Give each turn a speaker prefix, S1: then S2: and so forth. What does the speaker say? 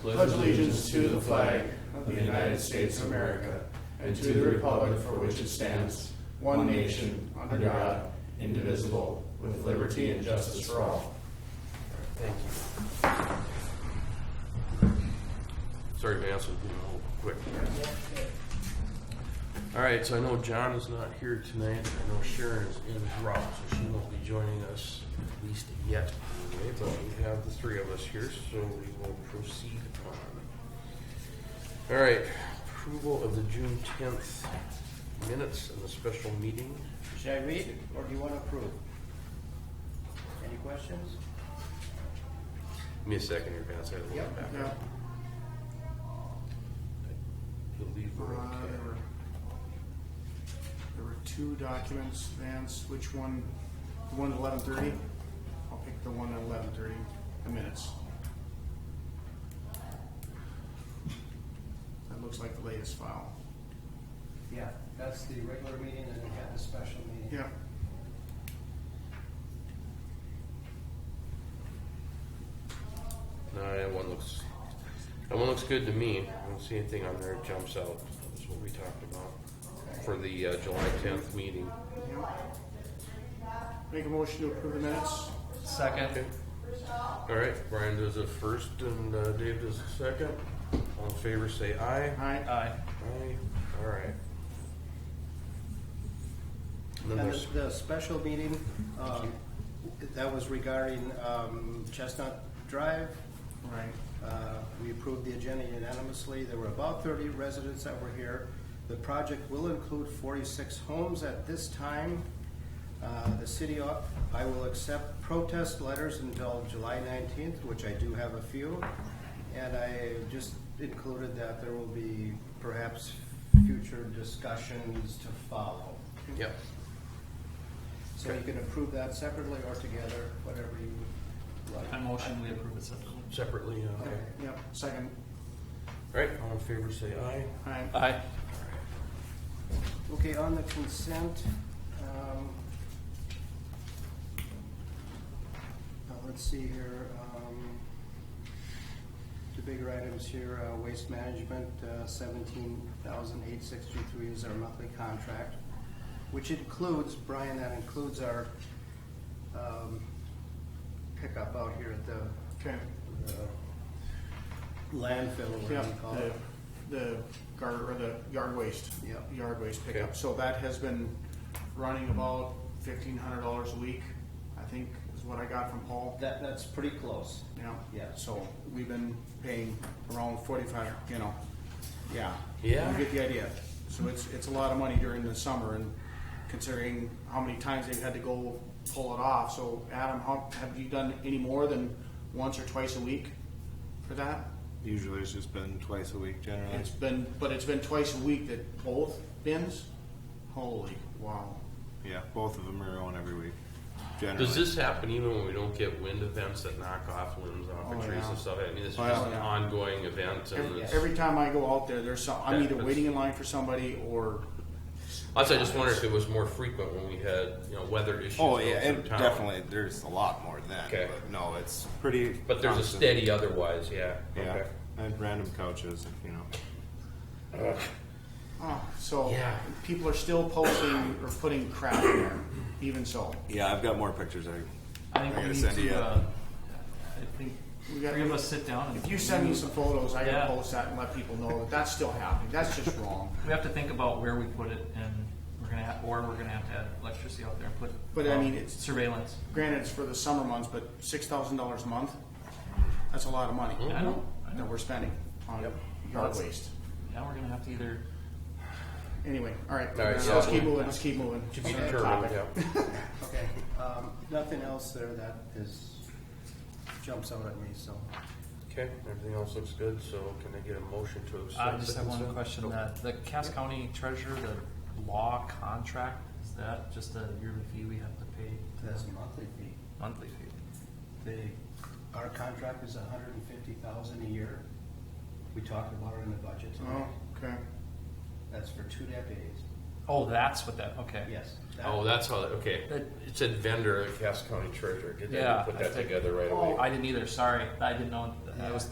S1: pledge allegiance to the flag of the United States of America and to the republic for which it stands, one nation, under God, indivisible, with liberty and justice for all.
S2: Thank you. Sorry to answer, you know, quick. All right, so I know John is not here tonight. I know Sharon is in route, so she won't be joining us, at least yet. anyway, But we have the three of us here, so we will proceed on. All right, approval of the June tenth minutes and the special meeting.
S3: Should I read or do you want to approve? Any questions?
S2: Give me a second here, Vance, I have a little back. I believe
S1: Uh,
S2: we're okay.
S1: There were there were two documents, Vance, which one, the one at eleven thirty? I'll pick the one at eleven thirty, the minutes. That looks like the latest file.
S3: Yeah, that's the regular meeting and we have the special meeting.
S1: Yeah,
S2: No, that one looks, that one looks good to me. I don't see anything on there that jumps out. That's what we talked about for the uh, July tenth meeting.
S1: yeah. Make a motion to approve the minutes?
S2: Okay. All right, Brian does a first and uh, Dave does a second. All in favor, say aye.
S1: Aye.
S4: Aye.
S2: Aye. All right. And then
S3: And
S2: there's,
S3: the- the special meeting, um, that was regarding um, Chestnut Drive.
S1: Right.
S3: Uh, We approved the agenda unanimously. There were about thirty residents that were here. The project will include forty-six homes at this time. Uh, The city, o- I will accept protest letters until July nineteenth, which I do have a few. And I just included that there will be perhaps future discussions to follow.
S2: yep.
S3: So you can approve that separately or together, whatever you like.
S4: I motion we approve it separately.
S2: Separately, uh, okay.
S1: Yep, second.
S2: All right, all in favor, say aye.
S1: Aye.
S4: Aye.
S3: Okay, on the consent, um, uh, let's see here, um, the bigger items here, uh, waste management, uh, seventeen thousand eight sixty-three is our monthly contract, which includes, Brian, that includes our, um, pickup out here at the
S1: Okay.
S3: landfill, or
S1: Yeah,
S3: whatever you call it.
S1: the, the guard, or the yard waste.
S3: Yep.
S1: Yard waste pickup,
S2: Okay.
S1: so that has been running about fifteen hundred dollars a week, I think is what I got from Paul,
S3: That, that's pretty close.
S1: yeah.
S3: Yeah.
S1: So we've been paying around forty-five, you know, yeah.
S2: Yeah.
S1: You get the idea, so it's, it's a lot of money during the summer and considering how many times they've had to go pull it off, so Adam, how, have you done any more than once or twice a week for that?
S5: Usually it's just been twice a week generally.
S1: It's been, but it's been twice a week that both bins. Holy wow!
S5: Yeah, both of them are on every week. Generally.
S2: Does this happen even when we don't get wind events that knock off limbs off of
S1: Oh,
S2: trees
S1: yeah.
S2: and stuff? I mean, it's
S5: Oh,
S2: just
S5: yeah.
S2: an ongoing event, and
S1: Every,
S2: it's,
S1: every time I go out there, there's some. I'm
S2: Yeah,
S1: either
S2: that's-
S1: waiting in line for somebody or
S2: also I just wonder if it was more frequent when we had you know weather issues.
S5: Oh
S2: go
S5: yeah,
S2: through
S5: and
S2: town.
S5: definitely there's a lot more than.
S2: Okay.
S5: But no, it's pretty.
S2: But there's a
S5: constant.
S2: steady otherwise, yeah.
S5: Yeah,
S2: Okay.
S5: and random couches, you know.
S1: oh, so.
S2: Yeah.
S1: People are still posting or putting crap in there. Even so,
S5: Yeah, I've got more pictures. I
S4: I
S5: I
S4: think we
S5: gotta
S4: need
S5: send you-
S4: to, uh, I think,
S1: We got-
S4: three of us sit down and.
S1: if you send me some photos, I can
S4: Yeah.
S1: post that and let people know that that's still happening. That's just wrong.
S4: We have to think about where we put it and we're gonna have, or we're gonna have to add electricity out there and put.
S1: But I
S4: um,
S1: mean, it's-
S4: Surveillance.
S1: Granted, it's for the summer months, but six thousand dollars a month. That's a lot of money
S4: I know, I
S1: that
S4: know.
S1: we're spending on
S2: Mm-hmm. Yep.
S1: yard
S4: That's-
S1: waste.
S4: Now we're gonna have to either,
S1: Anyway, all right,
S2: All right,
S1: so
S2: yeah.
S1: let's keep moving, let's keep moving.
S2: To be
S1: Sorry,
S2: determined.
S1: topic.
S2: Yeah.
S3: Okay, um, nothing else there that is, jumps out at me, so.
S2: Okay. Everything else looks good. So can I get a motion to accept?
S4: I just
S2: the
S4: have one
S2: consent?
S4: question,
S2: Go.
S4: that the Cass County Treasurer, the law contract, is that just a yearly fee we have to pay? to
S3: That's a
S4: them?
S3: monthly fee.
S4: Monthly fee.
S3: They, our contract is a hundred and fifty thousand a year. We talked about it in the budget today.
S1: Oh, okay.
S3: That's for two decades.
S4: Oh, that's what that, okay.
S3: Yes. that-
S2: Oh, that's how. That, okay.
S4: That-
S2: It said vendor at Cass County Treasurer. Get that.
S4: Yeah,
S2: put
S4: I
S2: that
S4: think-
S2: together right away.
S4: Oh, I didn't either, sorry, I didn't know, I was